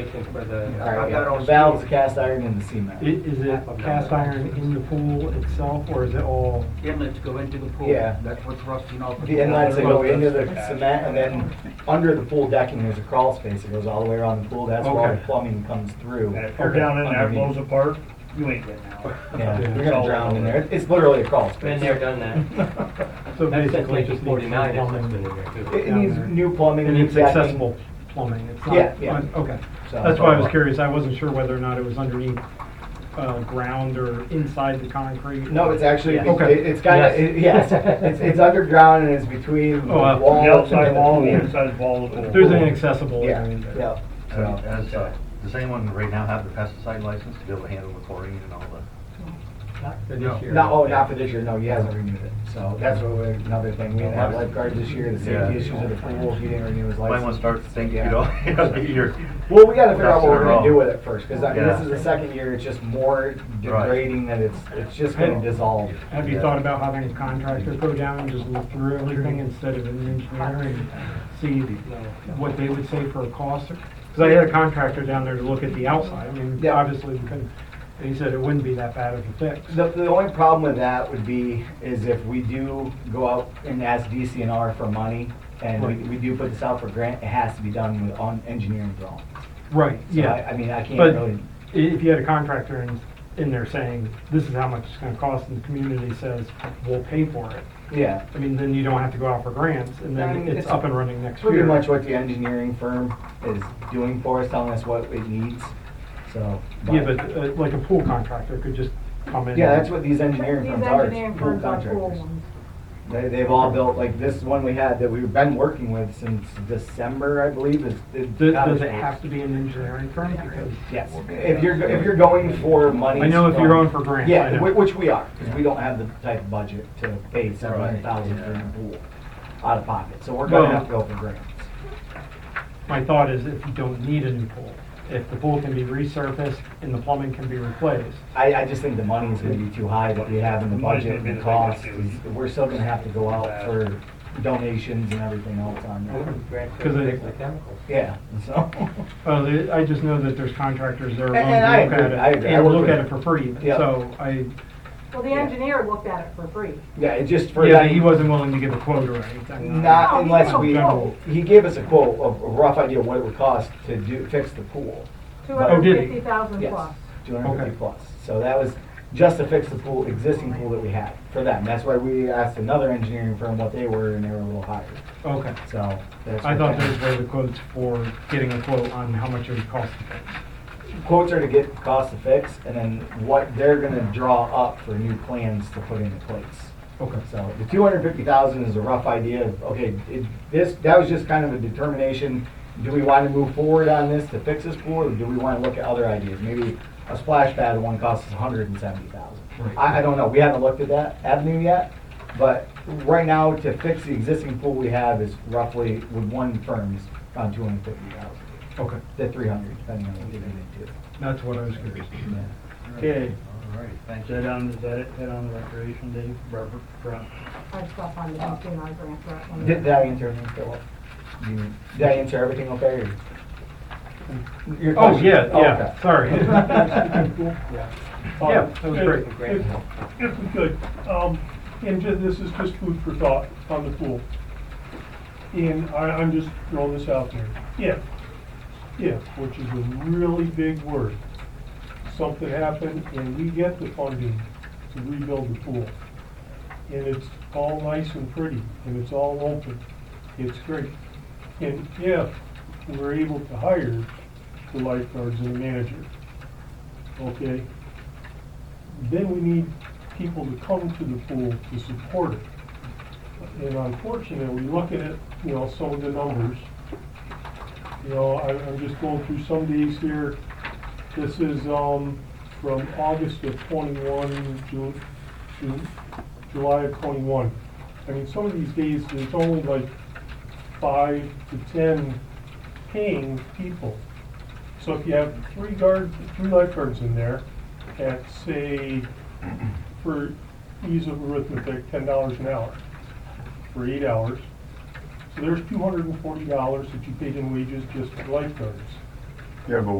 Congratulations for the. All right, I've yeah. got all The valve's steel. cast iron and the cement. Is it cast iron in the pool itself, or is it all? inlets go into the pool. Yeah. That's what's rusting off. The inlets that go into the cement and then under the pool decking, there's a crawl space that goes all the way around the pool. That's where all the Okay. plumbing comes through. And if you're down in there, it blows underneath. apart, you ain't getting out. Yeah, you're It's gonna all drown in over. there. It's- It's literally a crawl space. Been there, done that. So That's since basically just nineteen needs forty-nine, it's some been plumbing. in there too. It it down needs there. new plumbing. And new it's decking. accessible plumbing, it's not. Yeah, yeah. Okay, So- uh, that's why I was curious, I wasn't sure whether or not it was underneath, uh, ground or inside the concrete. No, it's actually, Yeah. Okay. it- it's kind of, Yes. yes, it's, it's underground and it's between the Oh, uh, wall. The outside and the wall, pool. the inside wall of the pool. There's an accessible Yeah, area in there. yeah. So, So, As, uh, does anyone right now have the pesticide license to be able to handle the chlorine and all the? Not for No. this year. Not, oh, not for this year, no, he hasn't renewed it, so that's what we're- another thing, we didn't have lifeguards this year, the Yeah. safety issues of the pool, he didn't renew his Might want to license. start thinking, you Yeah. know, you know, you're. Well, we gotta figure out Ducks what in we're a gonna row. do with it first, cause I mean, this Yeah. is the second year, it's just more degrading than it's, it's just gonna dissolve. Have you Yeah. thought about having a contractor go down and just look through everything instead of an engineer and see what they would say for a cost? Because I had a contractor down there to look at the outside, I mean, Yeah. obviously, we couldn't- and he said it wouldn't be that bad of a fix. The, the only problem with that would be, is if we do go out and ask DCNR for money, and we, Right. we do put this out for grant, it has to be done with, on engineering drawings. Right, So yeah. I, I mean, I can't But really, i- if you had a contractor in, in there saying, this is how much it's gonna cost, and the community says, we'll pay for it, yeah. I mean, then you don't have to go out for grants, and I mean, then it's it's up and running next year. Pretty much what the engineering firm is doing for us, telling us what it needs, so. Yeah, but uh, like a pool contractor could just come in. Yeah, and- that's what these engineering firms are, These engineering is pool firms are pool contractors. ones. They, they've all built, like this one we had that we've been working with since December, I believe, is. is Does, cottage does it pools. have to be an engineering firm? Because Yes, if you're, if you're going for money. I know if you're going for grants, I Yeah, know. whi- which we are, because we don't have the type of budget to pay seven hundred thousand for yeah. a pool out of pocket, so we're gonna Well- have to go for grants. my thought is if you don't need a new pool, if the pool can be resurfaced and the plumbing can be replaced, I, I just think the money is gonna be too high that we have in the Money's budget, gonna be the the biggest cost, issue. we're still gonna have to go out for donations and everything else on that. Grant for 'Cause it- fixing the chemicals. Yeah, so, Well, the- I just know that there's contractors that are And- willing to and I look agree, I at it agree. I and work look with- at it for free. Yeah. So I, Well, the engineer looked at it for free. yeah, it just for. yeah, he wasn't willing to give a quote or anything. Not No, he unless gave a we, quote. he gave us a quote, a a rough idea of what it would cost to do, fix the pool. Two Oh, hundred did and he? fifty thousand Yes, plus. two hundred and Okay. fifty plus. So that was just to fix the pool, existing pool that we had for them. That's why we asked another engineering firm what they were, and they were a little higher, Okay. so. that's I what thought that- those were the quotes for getting a quote on how much it would cost to fix. Quotes are to get cost to fix, and then what they're gonna draw up for new plans to put into place. Okay. So the two hundred fifty thousand is a rough idea of, okay, it, this, that was just kind of a determination. Do we wanna move forward on this to fix this pool, or do we wanna look at other ideas? Maybe a splash pad one costs a hundred and seventy thousand. Right. I, I don't know, we haven't looked at that avenue yet, but right now, to fix the existing pool we have is roughly, with one firm, is around two hundred fifty thousand, Okay, to three hundred, depending on what you're gonna do. that's what I was curious. Yeah. Okay, All right, is thank you. that on, is that it, that on the recreation day, Robert, Brown? I stuff on the DCNR grant for that one. Oh. Did, did I answer everything, Philip? You- Did I answer everything okay? or- Your Oh, question? yeah, okay. yeah, sorry. Yeah, that was And great. if- If we could, um, and ju- this is just food for thought on the pool. And I, I'm just throwing this out there. If, if, which is a really big word, something happened and we get the funding to rebuild the pool, and it's all nice and pretty, and it's all open, it's great. And if we're able to hire the lifeguards and the manager, okay? then we need people to come to the pool to support it. And unfortunately, looking at, you know, some of the numbers, you know, I, I'm just going through some of these here. This is, um, from August of twenty-one, June, June, July of twenty-one. I mean, some of these days, there's only like five to ten paying people. So if you have three guard, three lifeguards in there, at say, for ease of arithmetic, ten dollars an hour for eight hours. So there's two hundred and forty dollars that you paid in wages just for lifeguards. Yeah, but